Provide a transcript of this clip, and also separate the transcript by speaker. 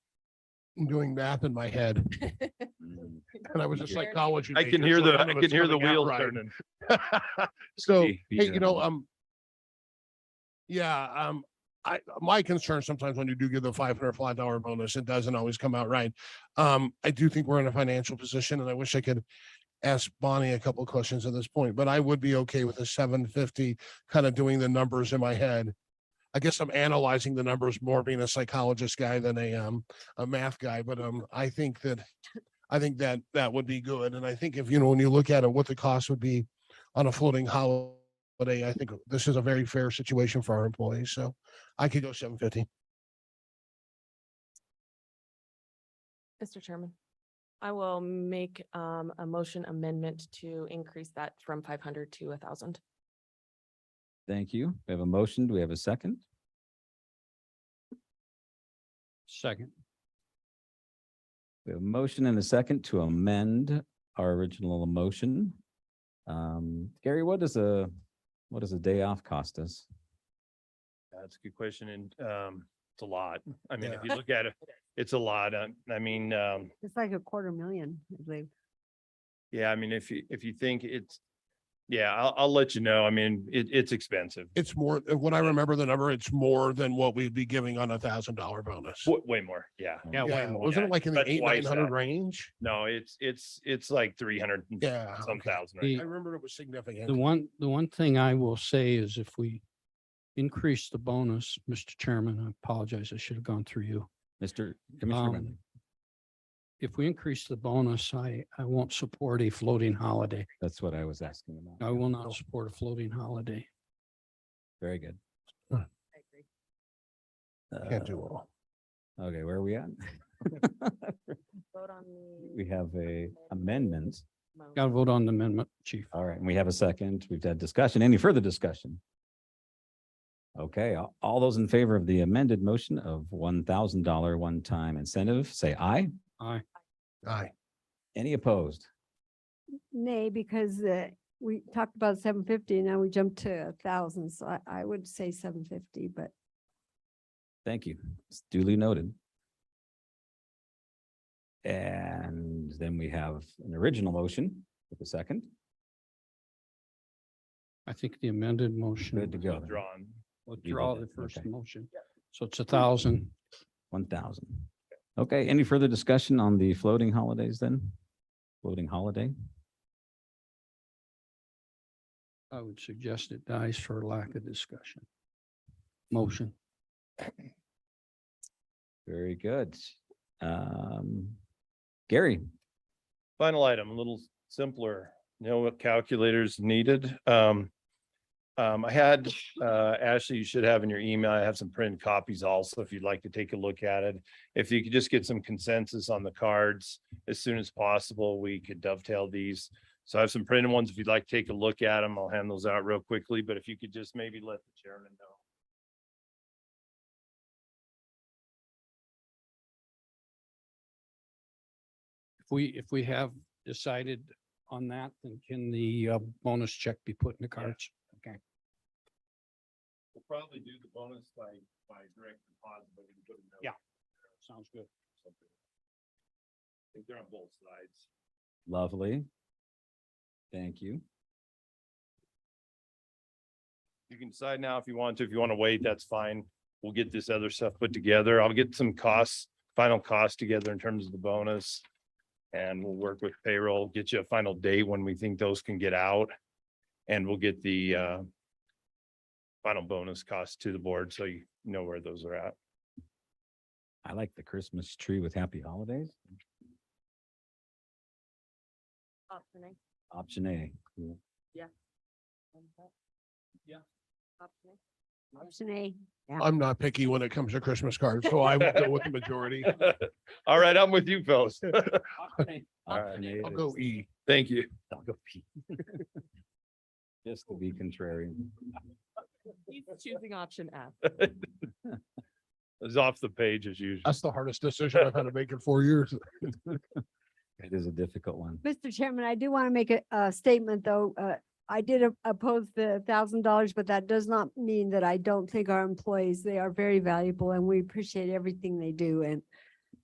Speaker 1: doing math in my head and I was "Oh, a
Speaker 2: Sure.
Speaker 1: psychology.
Speaker 3: I can
Speaker 1: major,
Speaker 3: hear
Speaker 1: so
Speaker 3: the-
Speaker 1: none
Speaker 3: I
Speaker 1: of
Speaker 3: can
Speaker 1: it's
Speaker 3: hear the
Speaker 1: coming out
Speaker 3: wheels
Speaker 1: right.
Speaker 3: turning.
Speaker 1: So, hey,
Speaker 3: Be- be
Speaker 1: you know,
Speaker 3: gentle.
Speaker 1: um, yeah, um, I, my concern sometimes when you do give the five hundred flat dollar bonus, it doesn't always come out right. Um, I do think we're in a financial position and I wish I could ask Bonnie a couple of questions at this point, but I would be okay with a seven fifty, kind of doing the numbers in my head. I guess I'm analyzing the numbers more being a psychologist guy than a, um, a math guy, but, um, I think that I think that that would be good. And I think if, you know, when you look at it, what the cost would be on a floating holiday, I think this is a very fair situation for our employees. So I could go seven fifty.
Speaker 2: Mr. Chairman, I will make um a motion amendment to increase that from five hundred to a thousand.
Speaker 4: Thank you. We have a motion. Do we have a second?
Speaker 5: Second.
Speaker 4: We have a motion and a second to amend our original motion. Um, Gary, what does a, what does a day off cost us?
Speaker 3: That's a good question and um, it's a lot. I mean,
Speaker 1: Yeah.
Speaker 3: if you look at it, it's a lot. Um, I mean, um,
Speaker 6: It's like a quarter million, I believe.
Speaker 3: yeah, I mean, if you, if you think it's, yeah, I'll, I'll let you know. I mean, it, it's expensive.
Speaker 1: It's more, uh, when I remember the number, it's more than what we'd be giving on a thousand dollar bonus.
Speaker 3: Wa- Way more, yeah.
Speaker 5: Yeah, way
Speaker 1: Yeah,
Speaker 5: more.
Speaker 1: wasn't
Speaker 3: Yeah,
Speaker 1: it like in the
Speaker 3: that's
Speaker 1: eight,
Speaker 3: twice
Speaker 1: nine hundred
Speaker 3: that.
Speaker 1: range?
Speaker 3: No, it's, it's, it's like three hundred and
Speaker 1: Yeah.
Speaker 3: some
Speaker 1: okay.
Speaker 3: thousand. right
Speaker 5: The-
Speaker 1: I remember it was
Speaker 5: The
Speaker 1: significant.
Speaker 5: one, the one thing I will say is if we increase the bonus, Mr. Chairman, I apologize, I should have gone through you.
Speaker 4: Mr. Commissioner
Speaker 5: Um,
Speaker 4: Wendling,
Speaker 5: If we increase the bonus, I, I won't support a floating holiday.
Speaker 4: that's what I was asking
Speaker 5: I
Speaker 4: about.
Speaker 5: will not support a floating holiday.
Speaker 4: Very good.
Speaker 6: I agree.
Speaker 1: Can't do all.
Speaker 4: Uh, Okay, where are we at?
Speaker 2: Vote on
Speaker 4: We have a amendment.
Speaker 5: Got to vote on the amendment, chief.
Speaker 4: All right, and we have a second. We've had discussion. Any further discussion? Okay, a- all those in favor of the amended motion of one thousand dollar one-time incentive, say aye.
Speaker 5: Aye.
Speaker 1: Aye.
Speaker 4: Any opposed?
Speaker 6: Nay, because uh, we talked about seven fifty, now we jumped to a thousand, so I, I would say seven fifty, but
Speaker 4: Thank you. It's duly noted. And then we have an original motion with a second.
Speaker 5: I think the amended
Speaker 4: Good to
Speaker 5: motion,
Speaker 4: go.
Speaker 3: Withdrawn.
Speaker 5: withdraw
Speaker 4: did
Speaker 5: the
Speaker 4: it,
Speaker 5: first
Speaker 4: okay.
Speaker 5: motion. So it's a thousand.
Speaker 4: One thousand. Okay, any further discussion on the floating holidays then? Floating holiday?
Speaker 5: I would suggest it dies for lack of discussion. Motion.
Speaker 4: Very good. Um, Gary,
Speaker 3: Final item, a little simpler, no calculators needed. Um, um, I had, uh, Ashley, you should have in your email, I have some printed copies also, if you'd like to take a look at it. If you could just get some consensus on the cards as soon as possible, we could dovetail these. So I have some printed ones, if you'd like to take a look at them, I'll hand those out real quickly, but if you could just maybe let the chairman know.
Speaker 5: If we, if we have decided on that, then can the uh, bonus check be put in the cards? Okay.
Speaker 3: We'll probably do the bonus by, by direct deposit, but we can put a note.
Speaker 5: Yeah. Sounds good.
Speaker 3: something. I think they're on both sides.
Speaker 4: lovely. Thank you.
Speaker 3: You can decide now if you want to. If you want to wait, that's fine. We'll get this other stuff put together. I'll get some costs, final costs together in terms of the bonus. And we'll work with payroll, get you a final date when we think those can get out. And we'll get the uh final bonus costs to the board, so you know where those are at.
Speaker 4: I like the Christmas tree with happy holidays.
Speaker 2: Option A.
Speaker 4: Option A. Cool.
Speaker 2: Yeah. Option A.
Speaker 6: option A.
Speaker 1: I'm not picky when it comes to Christmas cards, so I will go with the majority.
Speaker 3: All right, I'm with you, fellas. All right,
Speaker 4: Option A
Speaker 1: I'll
Speaker 4: is-
Speaker 1: go E.
Speaker 3: thank you.
Speaker 4: I'll go P. Just to be contrary.
Speaker 2: He's choosing option F.
Speaker 3: It's off the page as usual.
Speaker 1: That's the hardest decision I've had to make in four years.
Speaker 4: It is a difficult one.
Speaker 6: Mr. Chairman, I do want to make a, a statement, though. Uh, I did op- oppose the thousand dollars, but that does not mean that I don't think our employees, they are very valuable and we appreciate everything they do. And